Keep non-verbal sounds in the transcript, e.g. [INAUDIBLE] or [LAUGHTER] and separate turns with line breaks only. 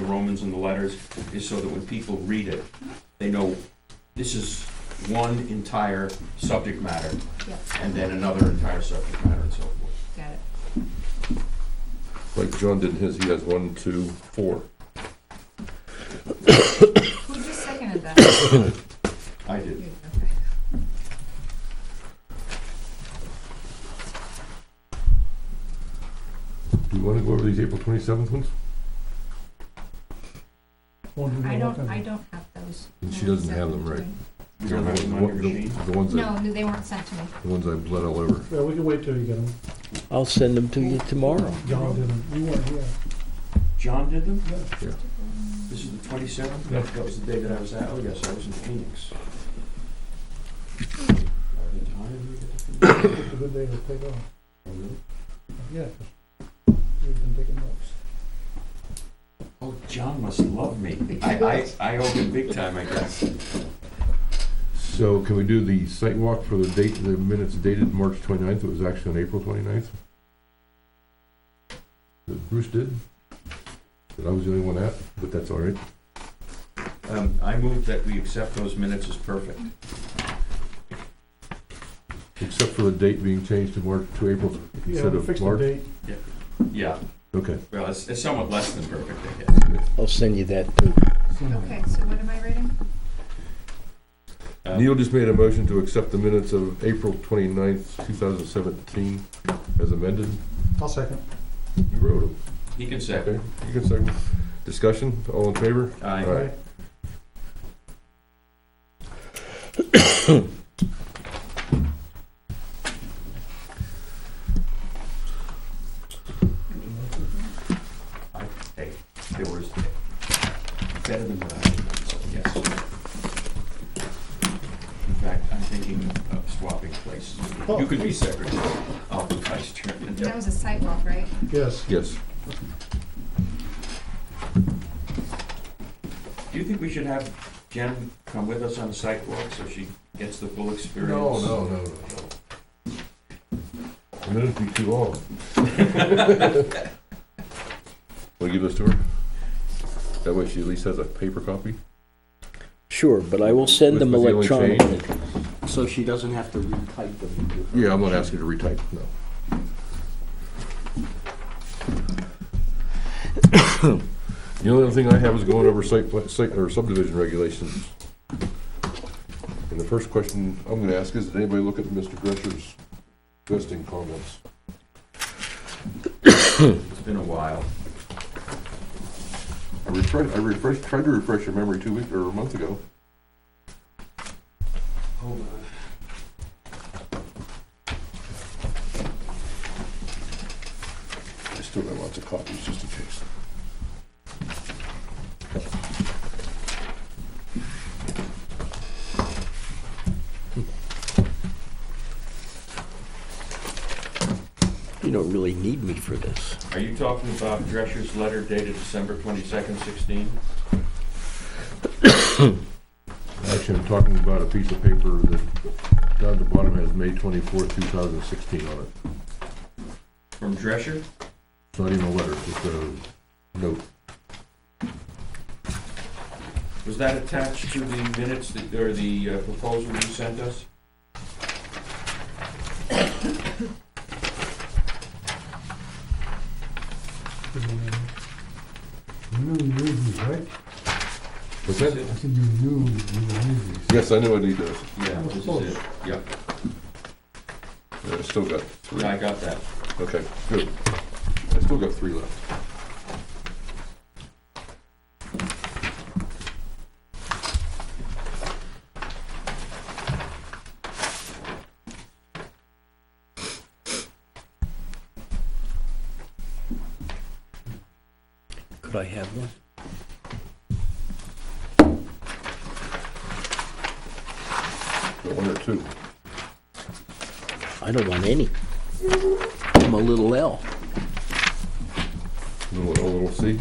Romans and the letters, is so that when people read it, they know this is one entire subject matter,
Yep.
and then another entire subject matter and so forth.
Got it.
Like John did in his, he has one, two, four.
Who just seconded that?
I did.
You, okay.
Do you want to go over these April twenty-seventh ones?
I don't, I don't have those.
And she doesn't have them, right?
You don't have them on your machine?
The ones
No,
I,
they weren't sent to me.
the ones I bled all over.
Yeah, we can wait till you get them.
I'll send them to you tomorrow.
John didn't, you weren't here.
John did them?
Yeah.
This is the twenty-seventh? That was the day that I was at, oh yes, I was in Phoenix.
It's a good day to take off.
Oh,
Yeah. You've been taking notes.
Oh, John must love me. I, I, I owe him big time, I guess.
So can we do the site walk for the date, the minutes dated March 29th? It was actually on April 29th. That Bruce did. That I was the only one at, but that's all right.
Um, I move that we accept those minutes as perfect.
Except for the date being changed to March, to April
Yeah,
instead
we
of
fixed the
March.
date.
Yeah,
Okay.
well, it's, it's somewhat less than perfect, I guess.
I'll send you that too.
Okay, so what am I reading?
Um,
Neil just made a motion to accept the minutes of April 29th, 2017 as amended.
I'll second.
You wrote them.
He can
Okay,
second.
you can second. Discussion, all in favor?
Aye.
All right.
I- Hey, there was, better than what I had, so yes. In fact, I'm thinking of swapping places.
Oh.
You could be secretary, I'll be vice chairman.
That was a sidewalk, right?
Yes.
Yes.
Do you think we should have Jen come with us on the sidewalk so she gets the full experience?
no, no, no. The minutes be too long. [LAUGHS] Want to give this to her? That way she at least has a paper copy?
Sure, but I will send them
With- with the only
electronically. So she doesn't have to retype them.
Yeah, I'm not asking her to retype, no. [COUGHS] The only other thing I have is going over site, pla- site, or subdivision regulations. And the first question I'm gonna ask is, did anybody look at Mr. Gresser's vesting comments?
It's been a while.
I refreshed, I refreshed, tried to refresh your memory two weeks, or a month ago.
Hold on.
I still got lots of copies, just in case.
You don't really need me for this.
Are you talking about Drescher's letter dated December twenty-second, sixteen?
Actually, I'm talking about a piece of paper that down at the bottom has May twenty-fourth, two thousand sixteen on it.
From Drescher?
It's not even a letter, it's just a note.
Was that attached to the minutes that, or the uh, proposal you sent us?
knew you knew these, right?
What's that?
I said you knew you knew these.
Yes, I know I need those.
Yeah, this is it. Yeah,
I still got three.
yeah, I got that.
Okay, good. I still got three left.
Could I have one?
Got One or two.
I don't want any. I'm a little L.
Little, a little C.